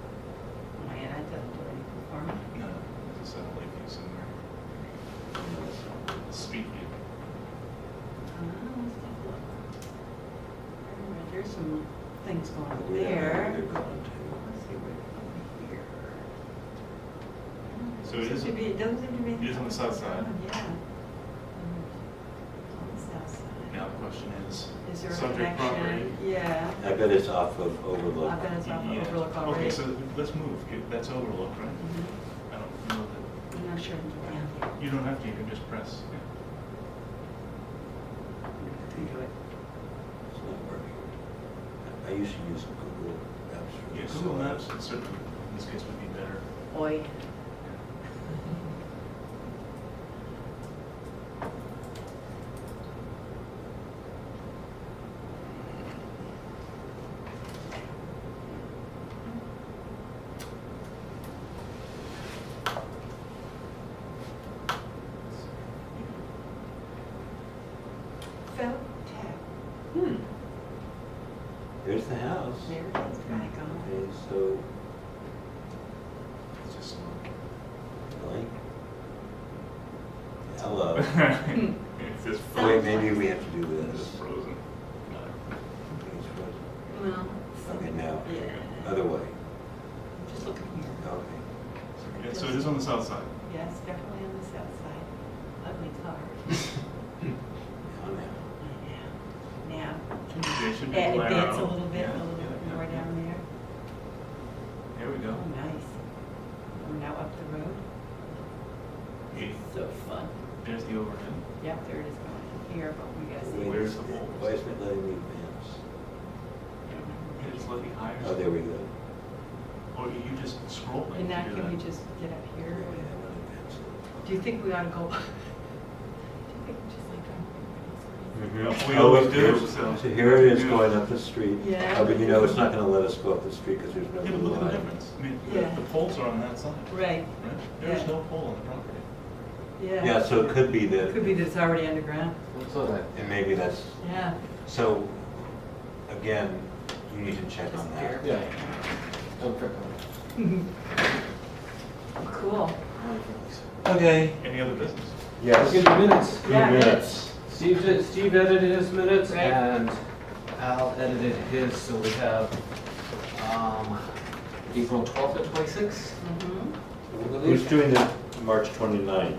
Uh, some things going on We have there. negative on too. Let's see what, over here. So it is- Doesn't seem to be- doesn't seem to be. Oh, it is on the south side. Yeah. On the south side. Now the question is, Is there a subject property. connection? Yeah. I bet it's off of overlook. I bet it's off of Yeah. Overlook already. Okay, so let's move, If that's overlook, right? Mhm. I don't know I'm not sure. Yeah. that, you don't have to, you can just press. yeah. It's not working. I- I used to use Google Maps for Yeah, this. Google Maps would certainly, in this case, would be better. Oi. Felt tech. Hmm. There's the house. There it is, back on. Okay, so, It's just like, hello. Oh, slow. It's just Wait, frozen. maybe we have to do It's this. just frozen. It's what- Well. Okay, now, Yeah. other way. Just look in here. Okay. Yeah, so it is on the south side. Yes, definitely on the south side. Ugly car. Now, now. Now, can They should you be add- blaring advance a out. little bit, a Yeah, little yeah, bit yeah, more yeah. down there? There we Oh, go. nice. We're now up the road. Hey, So fun. There's the overhead. Yep, there it is going in here, but we gotta see. Wait, Where's the hole? Why isn't it letting me advance? It's slightly higher. Oh, there we go. Or you just scroll. like And you now do can that. we just get up Yeah, I here? want to advance it. Do you think we ought to go? Do you think we just like drive everybody's Mhm. We Oh, always look, do, here's- so- So here it is going up the street. Yeah. Oh, But you know, it's not gonna let us go up the street because there's no Yeah, but look at the line. difference. I mean, Yeah. the, the poles are on that side, Mm-hmm. crazy? Right, right? There's Yeah. no pole on the property. yeah. Yeah, so it could be Could that, be that it's already underground. and maybe that's, Yeah. so, again, you need to check on that. Yeah. Don't trip on it. Cool. Okay. Any other business? Let's get the minutes. Yeah, minutes. Steve, did- Steve edited his minutes Right. and Al edited his, so we have, um, April twelfth and twenty-sixth. Mhm. Who's doing the March 29th?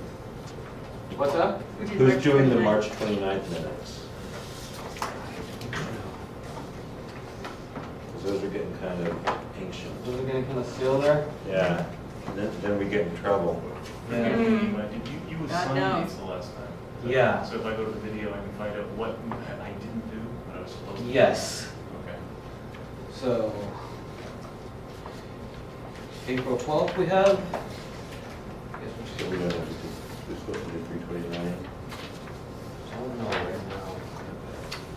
What's up? We did Who's March doing the 29th. March 29th minutes? 'Cause those are getting kind of ancient. Those are getting kind of stale there. Yeah, then, then we get in trouble. Mm. Yeah. You might- did You, you God assigned knows. these the last time. Yeah. So if I go to the video, I can find out what I didn't do, what I was supposed to. do. Yes, Okay. so. April twelfth we have. Guess we'll So see. we don't have to, do- we're supposed to do 329. Don't know right now.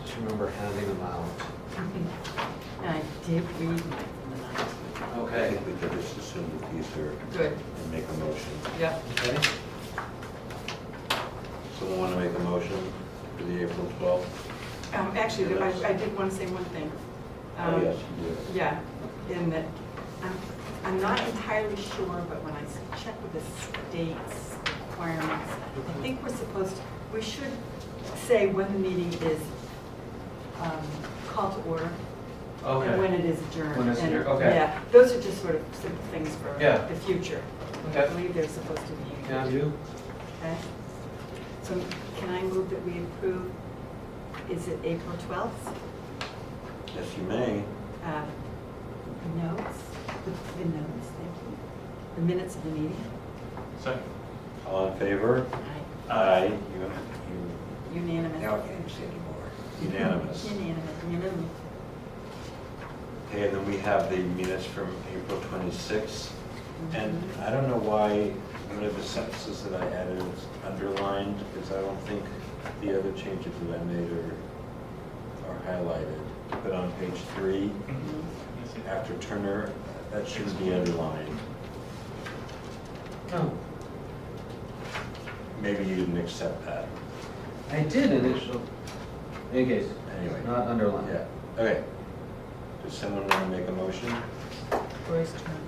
Just remember handing them out. I did read mine from the night. I Okay. think we could just assume that these are, Good, and make a motion. yep. Okay. Someone want to make a motion for the April 12th? Um, Actually, I I did want to say one thing. Oh, Um, yes, you do. Yeah, in that, I'm, I'm not entirely sure, but when I s- check with the state's requirements, I Mm-hmm. think we're supposed, to we should say when the meeting is um, called to order and when Okay. it is adjourned. When it's And, adjourned, okay. Yeah, those are just sort of simple things for Yeah. the future. I Okay. believe they're supposed to be. Can I do? Okay. So can I move that we approve, is it April 12th? Yes, you may. Uh, Notes, the- the notes, thank you. The minutes of the meeting. Second. All in favor? Aye. Aye. You- you- Now I Unanimous. can't say anymore. Unanimous. Unanimous, unanimous. Okay, and then we have the minutes from April 26th. And I don't know why one of the sentences that I added is underlined, because I don't think the other changes that I made are, are highlighted. But on page three, Mm-hmm. Yes, it- after Turner, that should be underlined. No. Maybe you didn't accept that. I did initial. In case. Anyway. Not underlined. Yeah, okay. Does someone want to make a motion? Roy's turn.